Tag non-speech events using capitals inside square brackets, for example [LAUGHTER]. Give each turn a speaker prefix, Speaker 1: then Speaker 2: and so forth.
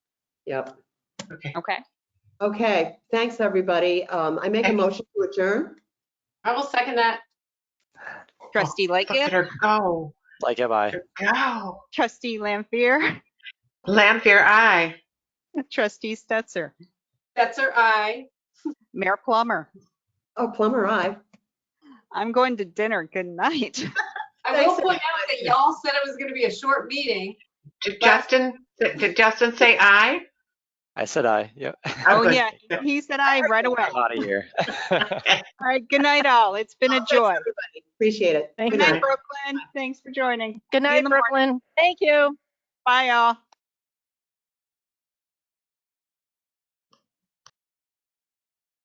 Speaker 1: Yep.
Speaker 2: Okay,
Speaker 3: Okay.
Speaker 1: Okay, thanks, everybody. Um, I make a
Speaker 2: Thank you.
Speaker 1: motion to adjourn.
Speaker 2: I will second that.
Speaker 3: Trustee
Speaker 2: Look at
Speaker 3: Lightgib,
Speaker 2: her go,
Speaker 4: Like am I.
Speaker 2: Look at her go.
Speaker 3: trustee Lampier,
Speaker 2: Lampier, aye.
Speaker 3: trustee Stetser,
Speaker 2: That's her eye.
Speaker 3: Mayor Plummer.
Speaker 1: Oh, plumber, I.
Speaker 3: I'm going to dinner. Good night.
Speaker 5: I will
Speaker 1: Thanks,
Speaker 5: point out that y'all said it was gonna be a short meeting.
Speaker 2: Did Justin, did did Justin say aye?
Speaker 4: I said I. Yep.
Speaker 3: [LAUGHS] Oh,
Speaker 2: Okay.
Speaker 3: yeah. He said I right away.
Speaker 4: I'm out of here.
Speaker 3: All right. Good night, all. It's
Speaker 1: [LAUGHS]
Speaker 3: been a joy.
Speaker 1: Appreciate it.
Speaker 6: Thank
Speaker 1: Good
Speaker 3: Good
Speaker 1: night.
Speaker 3: night, Brooklyn. Thanks for joining.
Speaker 6: Good
Speaker 3: See you in
Speaker 6: night,
Speaker 3: the morning.
Speaker 6: Brooklyn.
Speaker 3: Thank you. Bye, all.